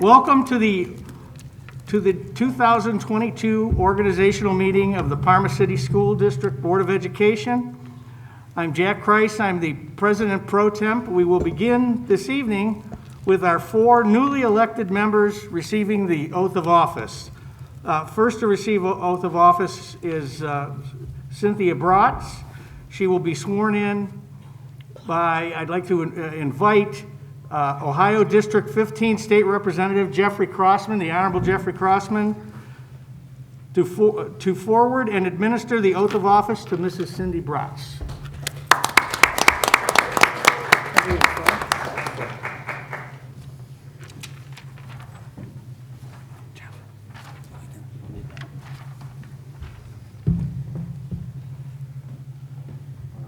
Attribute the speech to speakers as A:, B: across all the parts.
A: Welcome to the, to the 2022 organizational meeting of the Parma City School District Board of Education. I'm Jack Kreis, I'm the President Pro Temp. We will begin this evening with our four newly elected members receiving the oath of office. Uh, First to receive o- oath of office is uh, Cynthia Bratz. She will be sworn in by, I'd like to uh, invite uh, Ohio District 15 State Representative Jeffrey Crossman, the Honorable Jeffrey Crossman, to for- to forward and administer the oath of office to Mrs. Cindy Bratz.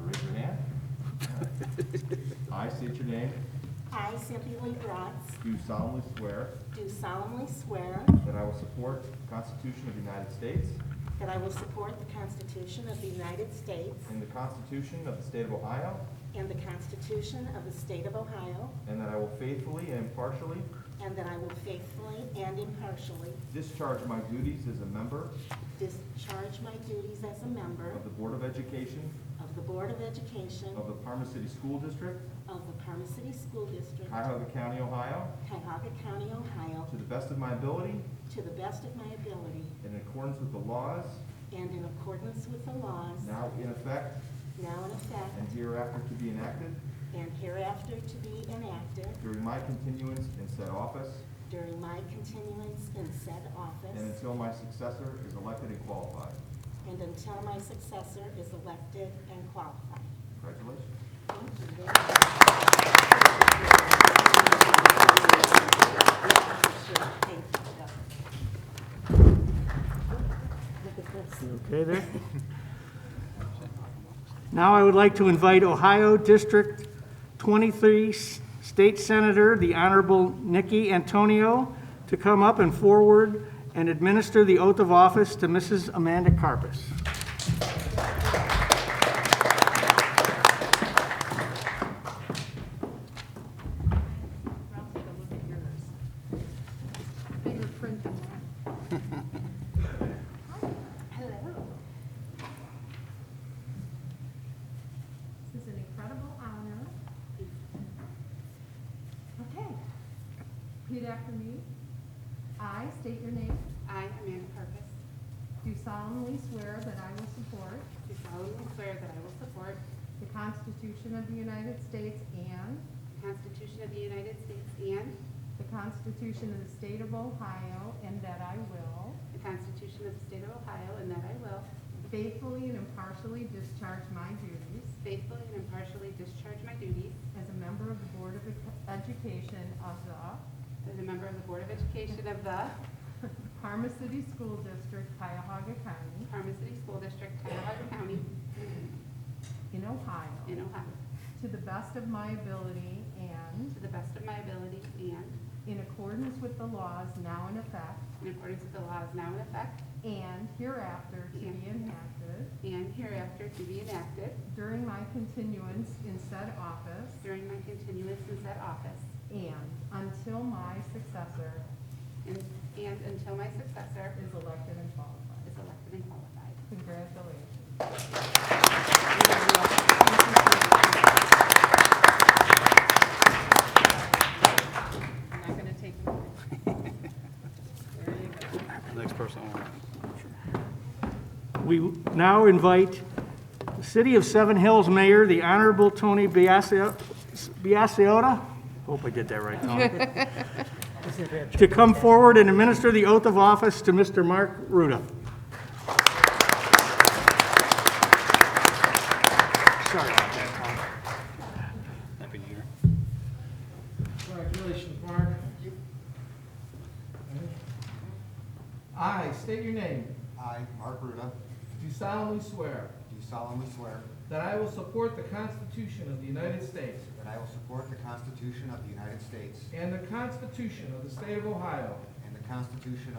B: Raise your hand. I state your name.
C: I, Cynthia Lee Bratz,
B: Do solemnly swear
C: do solemnly swear
B: that I will support the Constitution of the United States
C: that I will support the Constitution of the United States
B: and the Constitution of the State of Ohio,
C: and the Constitution of the State of Ohio,
B: and that I will faithfully and impartially
C: and that I will faithfully and impartially
B: discharge my duties as a member
C: discharge my duties as a member
B: of the Board of Education
C: of the Board of Education
B: of the Parma City School District,
C: of the Parma City School District,
B: Cuyahoga County, Ohio,
C: Cuyahoga County, Ohio,
B: to the best of my ability
C: to the best of my ability
B: and in accordance with the laws
C: and in accordance with the laws
B: now in effect
C: now in
B: and
C: effect
B: hereafter to be enacted
C: and hereafter to be enacted
B: during my continuance in said office
C: during my continuance in said office.
B: and until my successor is elected and qualified.
C: And until my successor is elected and qualified.
B: Congratulations.
C: Thank you. Thank you. Look at this.
A: You okay there? Now I would like to invite Ohio District 23 S- State Senator, the Honorable Nikki Antonio, to come up and forward and administer the oath of office to Mrs. Amanda Carpus.
D: I'll take a look at yours. Fingerprint them all. Hello. This is an incredible honor. Okay. Repeat after me. I state your name.
E: I, Amanda Purvis,
D: Do solemnly swear that I will support
E: do solemnly swear that I will support
D: the Constitution of the United States and
E: the Constitution of the United States and
D: the Constitution of the State of Ohio, and that I will
E: the Constitution of the State of Ohio, and that I will
D: faithfully and impartially discharge my duties
E: faithfully and impartially discharge my duties
D: As a member of the Board of Ed- Education of the
E: as a member of the Board of Education of the
D: Parma City School District, Cuyahoga County,
E: Parma City School District, Cuyahoga County,
D: in Ohio,
E: in Ohio,
D: to the best of my ability and
E: to the best of my ability and
D: in accordance with the laws now in effect
E: in accordance with the laws now in effect
D: and hereafter to be enacted
E: and hereafter to be enacted
D: during my continuance in said office
E: during my continuance in said office
D: and until my successor
E: and and until my successor
D: is elected and qualified.
E: is elected and qualified.
D: Congratulations.
E: I'm not going to take them. There you go.
F: Next person on.
A: We now invite the City of Seven Hills Mayor, the Honorable Tony Biasio- Biassiota, hope I did that right, Tony, to come forward and administer the oath of office to Mr. Mark Ruda. Sorry about that, Tony.
F: Happy New Year.
G: Congratulations, Mark. I state your name.
H: I, Mark Ruda,
G: Do solemnly swear
H: do solemnly swear
G: that I will support the Constitution of the United States
H: that I will support the Constitution of the United States
G: and the Constitution of the State of Ohio,
H: and the Constitution